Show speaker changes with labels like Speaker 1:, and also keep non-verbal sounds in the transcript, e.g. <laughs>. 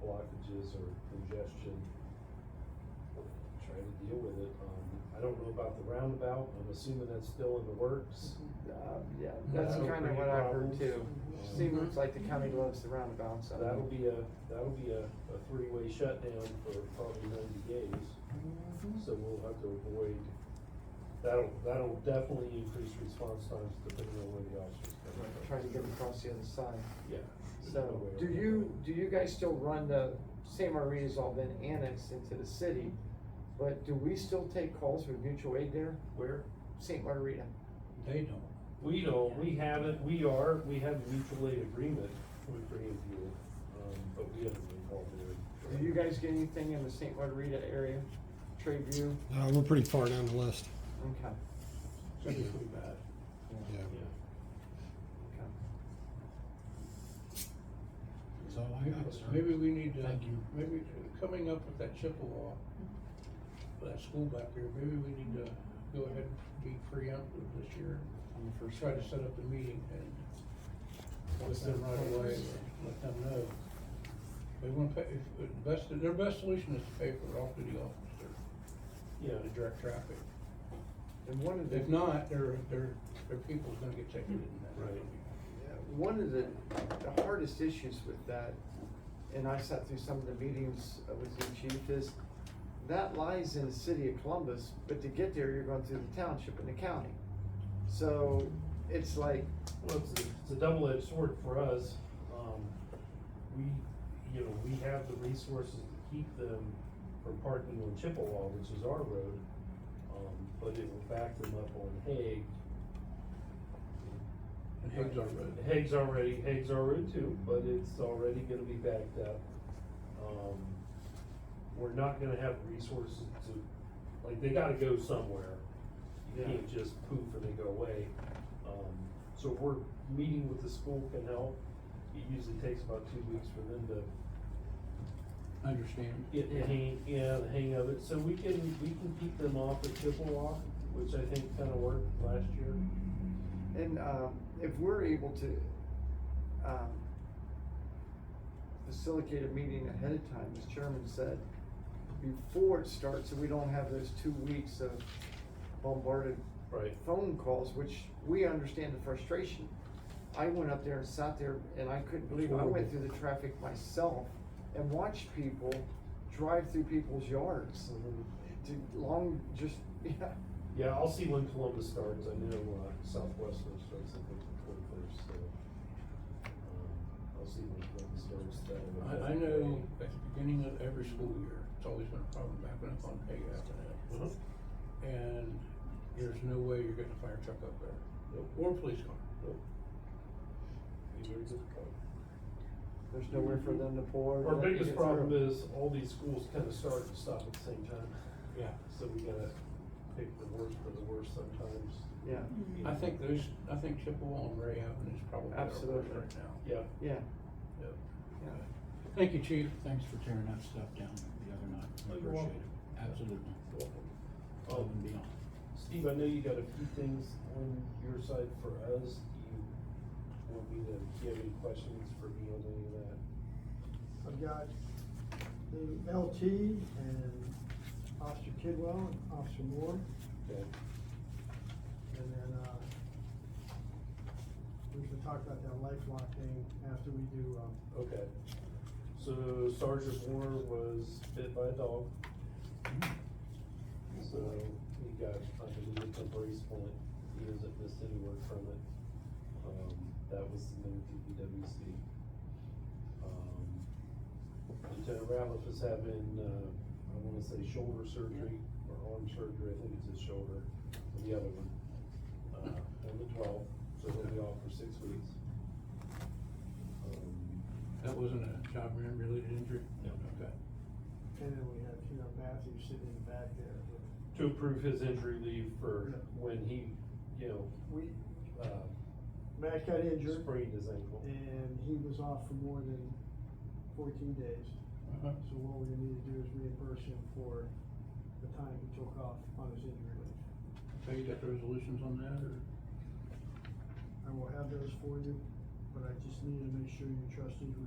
Speaker 1: blockages or congestion. Trying to deal with it. Um, I don't know about the roundabout. I'm assuming that's still in the works.
Speaker 2: Uh, yeah, that's
Speaker 1: That'll
Speaker 2: kinda
Speaker 1: create
Speaker 2: what I've heard
Speaker 1: problems.
Speaker 2: too.
Speaker 1: Mhm.
Speaker 2: Seems like the county loves the roundabout,
Speaker 1: So that'll
Speaker 2: so.
Speaker 1: be a, that'll be a, a three-way shutdown for probably ninety days. So
Speaker 2: Mm-hmm.
Speaker 1: we'll have to avoid, that'll, that'll definitely increase response times depending on where the officers come from.
Speaker 2: Trying to get across the other side.
Speaker 1: Yeah. there's no
Speaker 2: So,
Speaker 1: way
Speaker 2: do
Speaker 1: around
Speaker 2: you, do you guys still run the, San Marina's all been annexed into the city, but do we still take calls for mutual aid there,
Speaker 1: that. Where?
Speaker 2: Saint Margarita?
Speaker 3: They don't.
Speaker 1: We don't, we haven't, we are, we have a mutual aid agreement with Greenfield, um, but we haven't been called there.
Speaker 2: Do you guys get anything in the Saint Margarita area, Trade View?
Speaker 4: Uh, we're pretty far down the list.
Speaker 2: Okay,
Speaker 3: So it's pretty bad.
Speaker 4: Yeah.
Speaker 1: Yeah.
Speaker 2: okay.
Speaker 3: So I, Maybe we need to, maybe coming up with that Chippewa, for that school back here, maybe we need to go ahead and be preemptive this year.
Speaker 2: On the
Speaker 3: Or
Speaker 2: first
Speaker 3: try to
Speaker 2: day.
Speaker 3: set up a meeting and let them right away, or let them know. They wanna pay, if, if best, their best solution is to pay for it off to the officer, to
Speaker 1: Yeah,
Speaker 3: direct traffic.
Speaker 2: And one of the.
Speaker 3: If not, their, their, their people's gonna get ticketed and that's gonna be.
Speaker 2: One of the, the hardest issues with that, and I sat through some of the meetings uh, with the chief, is that lies in the city of Columbus, but to get there, you're going through the township and the county. So it's like,
Speaker 1: well, it's, a- it's a double-edged sword for us, um, we, you know, we have the resources to keep them from parking on Chippewa, which is our road, um, but it will back them up on Hague.
Speaker 3: And Hague's our road.
Speaker 1: Hague's already, Hague's our road too, but it's already gonna be backed up. Um, we're not gonna have resources to, like, they gotta go somewhere. You
Speaker 2: Yeah.
Speaker 1: can't just poof and they go away. Um, so we're, meeting with the school can help. It usually takes about two weeks for them to
Speaker 3: Understand.
Speaker 1: get the hang, yeah, the hang of it. So we can, we can keep them off at Chippewa, which I think kinda worked last year.
Speaker 2: and, uh, if we're able to, um, facilitate a meeting ahead of time, as chairman said, before it starts, so we don't have those two weeks of bombarded
Speaker 1: Right.
Speaker 2: phone calls, which we understand the frustration. I went up there and sat there and I couldn't believe, it. I went through the traffic myself and watched people drive through people's yards.
Speaker 5: Mm-hmm.
Speaker 2: To long, just, <laughs> yeah,
Speaker 1: Yeah, I'll see when Columbus starts. I know uh, Southwestern starts I think the twenty-first, so. um, I'll see when Columbus starts. That'll-
Speaker 3: I, I know at the beginning of every school year, it's always been a problem backing up on Hague Avenue.
Speaker 1: Uh-huh.
Speaker 3: And there's no way you're getting a fire truck up there,
Speaker 1: Nope,
Speaker 3: or a police car.
Speaker 1: nope. Be very difficult.
Speaker 2: there's nowhere for them to pour.
Speaker 1: Our
Speaker 2: let them
Speaker 1: biggest
Speaker 2: get through.
Speaker 1: problem is all these schools kind of start and stop at the same time,
Speaker 3: Yeah.
Speaker 1: so we gotta pick the worst for the worst sometimes.
Speaker 2: Yeah,
Speaker 1: you
Speaker 3: I
Speaker 1: know.
Speaker 3: think those, I think Chippewa and Ray Avenue is probably our worst
Speaker 2: Absolutely.
Speaker 3: right now.
Speaker 1: Yeah,
Speaker 2: yeah,
Speaker 1: yeah.
Speaker 2: yeah.
Speaker 3: Thank you, chief.
Speaker 6: Thanks for tearing that stuff down the other night. I
Speaker 1: Oh, you're
Speaker 6: appreciate
Speaker 1: welcome.
Speaker 6: it. Absolutely.
Speaker 1: Welcome.
Speaker 6: Above
Speaker 1: Um,
Speaker 6: and beyond.
Speaker 1: Steve, I know you got a few things on your side for us. Do you want me to, do you have any questions for me on any of that?
Speaker 5: I've got the LT and Officer Kidwell and Officer Moore,
Speaker 1: Okay,
Speaker 5: and then, uh, we can talk about that lifelock thing after we do, um,
Speaker 1: okay. So Sergeant Moore was bit by a dog. So he got, I believe, a temporary splint. He hasn't missed any work from it. Um, that was submitted to PWC. Um, Lieutenant Ratliff is having, uh, I wanna say shoulder surgery or arm surgery. I think it's his shoulder, or the other one. Uh, on the twelfth, so he'll be off for six weeks. Um,
Speaker 3: That wasn't a job related injury?
Speaker 1: No.
Speaker 3: Okay.
Speaker 5: and then we have, you know, Matthew sitting in the back there. with-
Speaker 1: to approve his injury leave for
Speaker 5: Yeah.
Speaker 1: when he, you know,
Speaker 5: We,
Speaker 1: uh,
Speaker 5: Matt got injured,
Speaker 1: sprained his ankle.
Speaker 5: and he was off for more than fourteen days,
Speaker 3: Uh-huh.
Speaker 5: so what we're gonna need to do is reimburse him for the time he took off on his injury leave.
Speaker 3: So you got the resolutions on that, or?
Speaker 5: I will have those for you, but I just need to make sure your trustees were